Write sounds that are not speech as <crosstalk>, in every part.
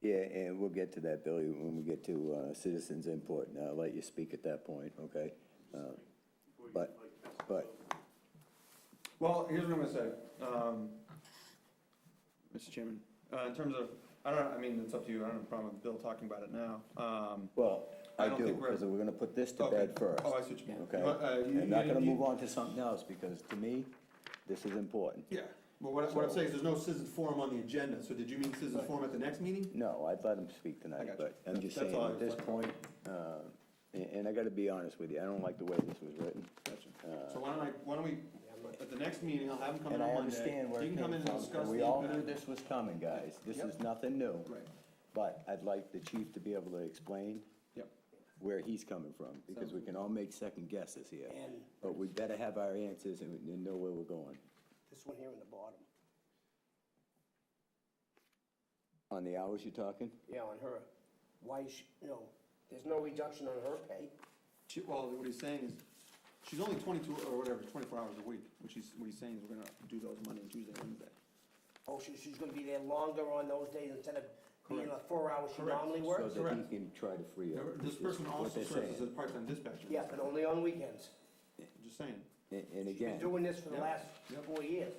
Yeah, and we'll get to that, Billy, when we get to uh, citizens' input, and I'll let you speak at that point, okay? Uh, But, but, Well, here's what I'm gonna say, um, Mr. Chairman, uh, in terms of, I don't, know. I mean, it's up to you, I don't have a problem with Bill talking about it now, um. well, I I don't do, think we're- because we're going to put this to okay. bed first. Oh, I see what you mean. Okay? You want- uh, you- I'm not you- going to you- move on to something else, because to me, this is important. Yeah, but what, I- what I'm saying is there's no citizen forum on the agenda, so did you mean citizen forum at the next meeting? No, I'd let him speak I tonight, got you. but I'm just That's saying, all I at was this looking point, uh, and and I got to be honest with you, I don't like the way this was written. Gotcha. So why don't I, why don't we, at the next meeting, I'll have him come in Uh, And I on Monday, understand where he it can come in came and from, discuss and the. we all knew benefit- this was coming, guys. This Yep. is nothing new. Right. But I'd like the chief to be able to explain Yep, where he's coming from, because we can all make second guesses here. But we better have our answers and we- and know where we're going. This one here in the bottom. On the hours you're talking? Yeah, on her. Why is she, no, there's no reduction on her pay. she, well, what he's saying is, she's only twenty-two or whatever, twenty-four hours a week, which he's, what he's saying is we're gonna do those Monday, Tuesday, Wednesday. Oh, she, she's gonna be there longer on those days instead of being the four hours she Correct. normally So works? that he Correct. can try to free up. Remember, This is what person also they're serves as a saying. part-time dispatcher. Yeah, but only on weekends. Just saying, And and She's been again, doing this for the Yep. last Yep. four years.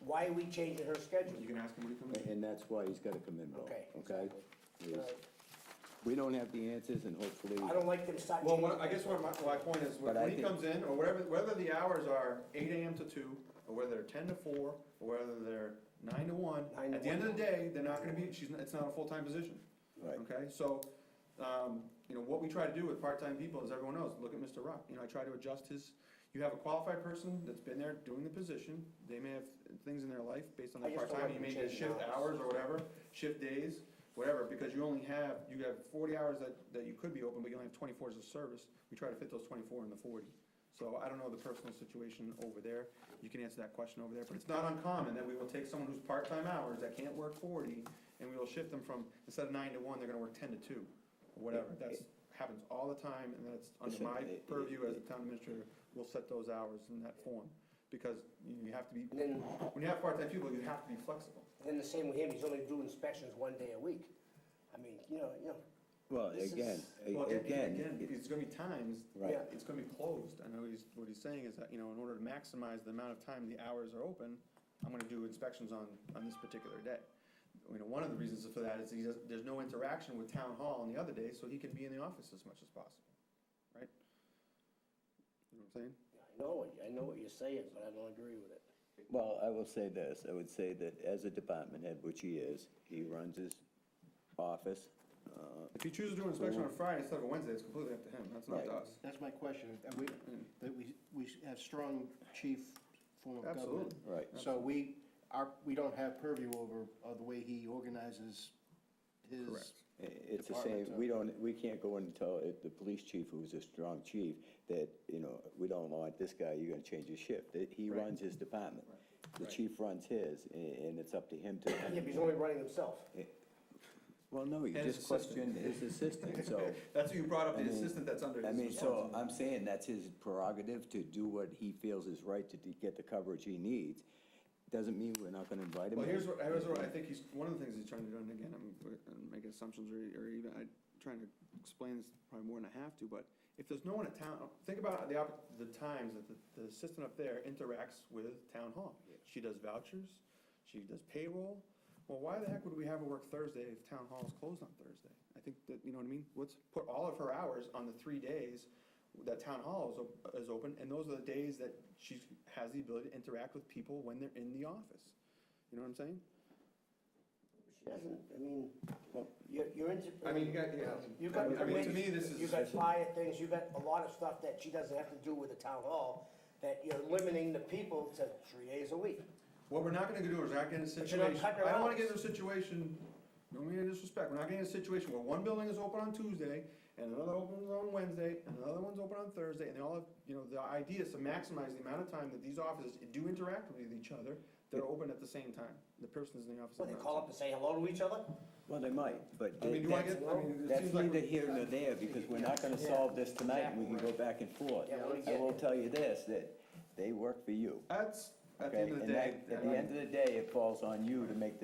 Why are we changing her schedule? you can ask him when he comes in. and that's why he's gotta come in, Bill, Okay, okay? Is- Right. We don't have the answers and hopefully, I don't like them start Well, changing. what, I guess what my, my point is, when But I when he think- comes in, or whatever, whether the hours are eight AM to two, or whether they're ten to four, or whether they're nine to one, Nine to at the end of one. the day, they're not gonna be, she's, not- it's not a full-time position. Right. Okay, so, um, you know, what we try to do with part-time people, as everyone knows, look at Mr. Rock, you know, I try to adjust his, you have a qualified person that's been there doing the position, they may have things in their life based on I their just don't part-time, you like the may change in shift hours hours. or whatever, shift days, whatever, because you only have, you have forty hours that, that you could be open, but you only have twenty-fours of service. We try to fit those twenty-four in the forty. So I don't know the personal situation over there, you can answer that question over there, but it's not uncommon that we will take someone who's part-time hours that can't work forty, and we will shift them from, instead of nine to one, they're gonna work ten to two, or whatever. That's, happens all the time, and that's under Listen, my it- it- purview as a town administrator, we'll set those hours in that form, because you have to be, And then, when you have part-time people, you have to be flexible. then the same with him, he's only doing inspections one day a week. I mean, you know, you know, well, This again, a- is- Well, a- again, Again, it- it's gonna be times, Right. Yeah. it's gonna be closed, I know he's, what he's saying is that, you know, in order to maximize the amount of time the hours are open, I'm gonna do inspections on, on this particular day. You know, one of the reasons for that is he does, there's no interaction with town hall on the other day, so he can be in the office as much as possible, right? You know what I'm saying? I know, it. I know what you're saying, but I don't agree with it. Well, I will say this, I would say that as a department head, which he is, he runs his office. uh, If he chooses to do an inspection on a Friday instead of a Wednesday, it's completely up to him, that's not to Right. us. That's my question, and we, that we, we have strong chief form of government. Absolutely. Right. So we, our, we don't have purview over, uh, the way he organizes his. Correct. i- It's the Department, same, uh, we don't, we can't go in and tell it- the police chief, who's a strong chief, that, you know, we don't want this guy, you're gonna change his shift. That He Right. runs his department. The Right. chief runs his, a- and it's up to him to. Yeah, but he's only running himself. Well, no, you And his just assistant. questioned his assistant, <laughs> so. <laughs> That's who you brought up, I the mean- assistant that's under his I mean, responsibility. so I'm saying that's his prerogative to do what he feels is right to d- get the coverage he needs. Doesn't mean we're not gonna invite him. Well, in. here's what, here's what, I think he's, one of the things he's trying to do, and again, I'm, I'm making assumptions or, or even, I'm trying to explain this probably more than I have to, but if there's no one at town, think about the, opp- the times that the, the assistant up there interacts with town hall. She does vouchers, she does payroll. Well, why the heck would we have her work Thursday if town hall is closed on Thursday? I think that, you know what I mean? Let's put all of her hours on the three days that town hall is, op- is open, and those are the days that she has the ability to interact with people when they're in the office. You know what I'm saying? She doesn't, I mean, you're, you're into. I mean, you got- yeah. You've got, I mean, to me, this is- you've got fire things, you've got a lot of stuff that she doesn't have to do with the town hall, that you're limiting the people to three days a week. What we're not gonna do is not get in a you're not situation, cutting I don't her wanna out. get in a situation, no mean any disrespect, we're not getting in a situation where one building is open on Tuesday, and another opens on Wednesday, and another one's open on Thursday, and they all have, you know, the idea is to maximize the amount of time that these offices do interact with each other, they're open at the same time, the person's in the office. What, at they the call same up and say hello to each other? Well, they might, but I mean, do I that's, get- I mean, it that's seems like neither we're- here nor there, because we're not gonna solve this tonight, and we can go back and forth. Yeah, we I get will it. tell you this, that they work for you, time. That's, at the okay? end of the And day. that- At the end of the day, it falls on you to make the